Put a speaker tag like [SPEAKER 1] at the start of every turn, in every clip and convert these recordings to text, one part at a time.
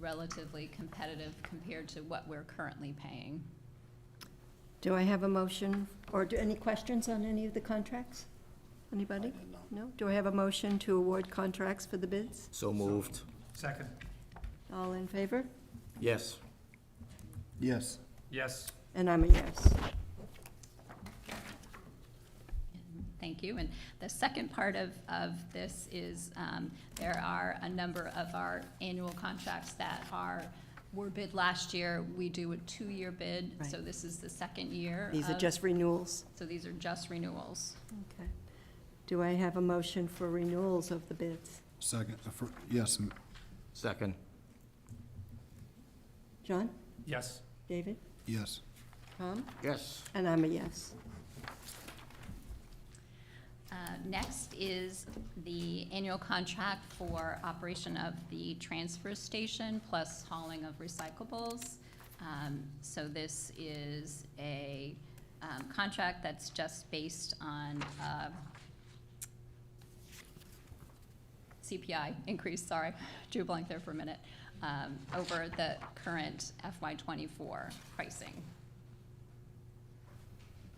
[SPEAKER 1] relatively competitive compared to what we're currently paying.
[SPEAKER 2] Do I have a motion, or do, any questions on any of the contracts? Anybody? No? Do I have a motion to award contracts for the bids?
[SPEAKER 3] So moved.
[SPEAKER 4] Second.
[SPEAKER 2] All in favor?
[SPEAKER 3] Yes.
[SPEAKER 5] Yes.
[SPEAKER 4] Yes.
[SPEAKER 2] And I'm a yes.
[SPEAKER 1] Thank you. And the second part of, of this is, um, there are a number of our annual contracts that are, were bid last year. We do a two-year bid, so
[SPEAKER 2] Right.
[SPEAKER 1] this is the second year.
[SPEAKER 2] These are
[SPEAKER 1] of-
[SPEAKER 2] just renewals.
[SPEAKER 1] So these are just renewals.
[SPEAKER 2] Okay. Do I have a motion for renewals of the bids?
[SPEAKER 5] Second, uh, fir- yes, m-
[SPEAKER 3] Second.
[SPEAKER 2] John?
[SPEAKER 4] Yes.
[SPEAKER 2] David?
[SPEAKER 5] yes.
[SPEAKER 2] Tom?
[SPEAKER 3] Yes.
[SPEAKER 2] And I'm a yes.
[SPEAKER 1] Uh, Next is the annual contract for operation of the transfer station plus hauling of recyclables. Um, So this is a um, contract that's just based on uh, CPI increase, sorry, drew a blank there for a minute, um, over the current FY twenty-four pricing.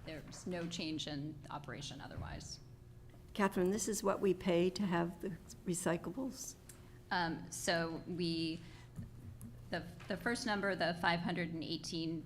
[SPEAKER 1] There's no change in operation otherwise.
[SPEAKER 2] Catherine, this is what we pay to have the recyclables?
[SPEAKER 1] Um, so we, the, the first number, the five hundred and eighteen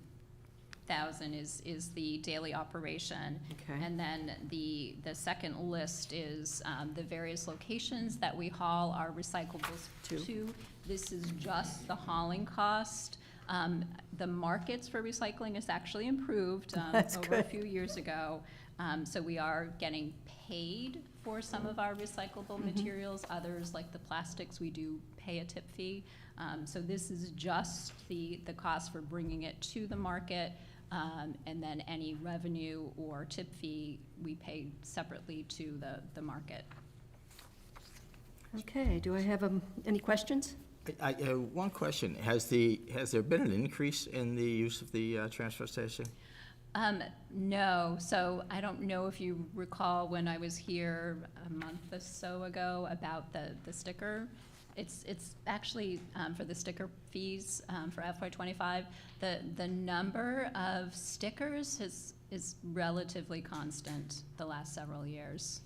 [SPEAKER 1] thousand is, is the daily operation.
[SPEAKER 2] Okay.
[SPEAKER 1] And then the, the second list is, um, the various locations that we haul our recyclables
[SPEAKER 2] To.
[SPEAKER 1] to. This is just the hauling cost. Um, the markets for recycling is actually improved, um,
[SPEAKER 2] That's
[SPEAKER 1] over a
[SPEAKER 2] good.
[SPEAKER 1] few years ago. Um, so we are getting paid for some of our recyclable
[SPEAKER 2] Mm-hmm.
[SPEAKER 1] materials, others like the plastics, we do pay a tip fee. Um, so this is just the, the cost for bringing it to the market. Um, and then any revenue or tip fee, we pay separately to the, the market.
[SPEAKER 2] Okay, do I have, um, any questions?
[SPEAKER 3] I, I, uh, one question, has the, has there been an increase in the use of the uh, transfer station?
[SPEAKER 1] Um, no, so I don't know if you recall when I was here a month or so ago about the, the sticker. It's, it's actually, um, for the sticker fees, um, for FY twenty-five, the, the number of stickers is, is relatively constant the last several years.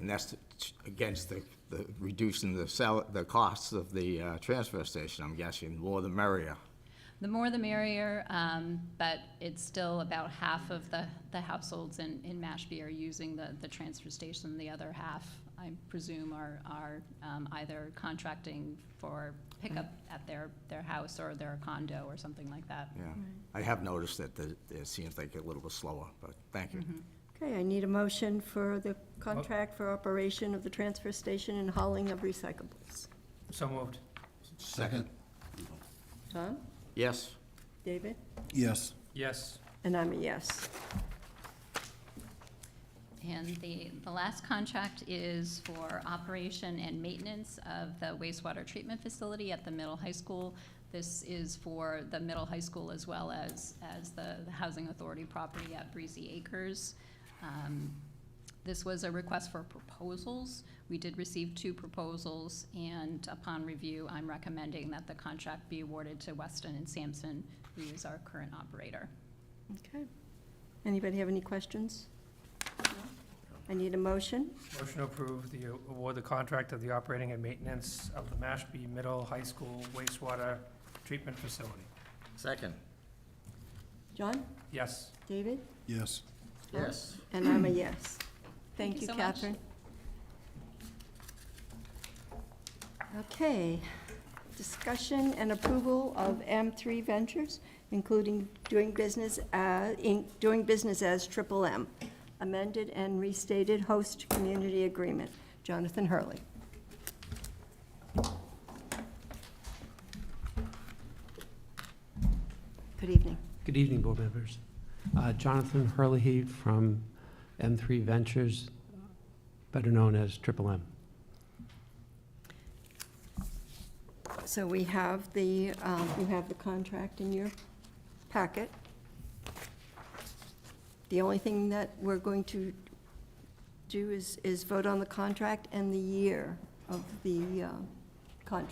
[SPEAKER 3] And that's t- t- against the, the reducing the sal, the costs of the uh, transfer station, I'm guessing, more the merrier.
[SPEAKER 1] The more the merrier, um, but it's still about half of the, the households in, in Mashpee are using the, the transfer station. The other half, I presume, are, are, um, either contracting for pickup at their, their house or their condo or something like that.
[SPEAKER 3] Yeah. I have noticed that the, it seems like a little bit slower, but thank you.
[SPEAKER 2] Okay, I need a motion for the contract for operation of the transfer station and hauling of recyclables.
[SPEAKER 4] So moved.
[SPEAKER 5] Second.
[SPEAKER 2] Tom?
[SPEAKER 3] Yes.
[SPEAKER 2] David?
[SPEAKER 5] Yes.
[SPEAKER 4] Yes.
[SPEAKER 2] And I'm a yes.
[SPEAKER 1] And the, the last contract is for operation and maintenance of the wastewater treatment facility at the middle high school. This is for the middle high school as well as, as the, the housing authority property at Breezy Acres. Um, This was a request for proposals. We did receive two proposals, and upon review, I'm recommending that the contract be awarded to Weston and Sampson, who is our current operator.
[SPEAKER 2] Okay. Anybody have any questions? I need a motion.
[SPEAKER 4] Motion to approve the award the contract of the operating and maintenance of the Mashpee Middle High School wastewater treatment facility.
[SPEAKER 3] Second.
[SPEAKER 2] John?
[SPEAKER 4] Yes.
[SPEAKER 2] David?
[SPEAKER 5] Yes.
[SPEAKER 3] Yes.
[SPEAKER 2] And I'm a yes.
[SPEAKER 1] Thank
[SPEAKER 2] Thank
[SPEAKER 1] you
[SPEAKER 2] you,
[SPEAKER 1] so much.
[SPEAKER 2] Catherine. Okay. Discussion and approval of M3 Ventures, including doing business, uh, in- doing business as Triple M, amended and restated host community agreement. Jonathan Hurley. Good evening.
[SPEAKER 6] Good evening, board members. Uh, Jonathan Hurley from M3 Ventures, better known as Triple M.
[SPEAKER 2] So we have the, um, you have the contract in your packet. The only thing that we're going to do is, is vote on the contract and the year of the uh, contract.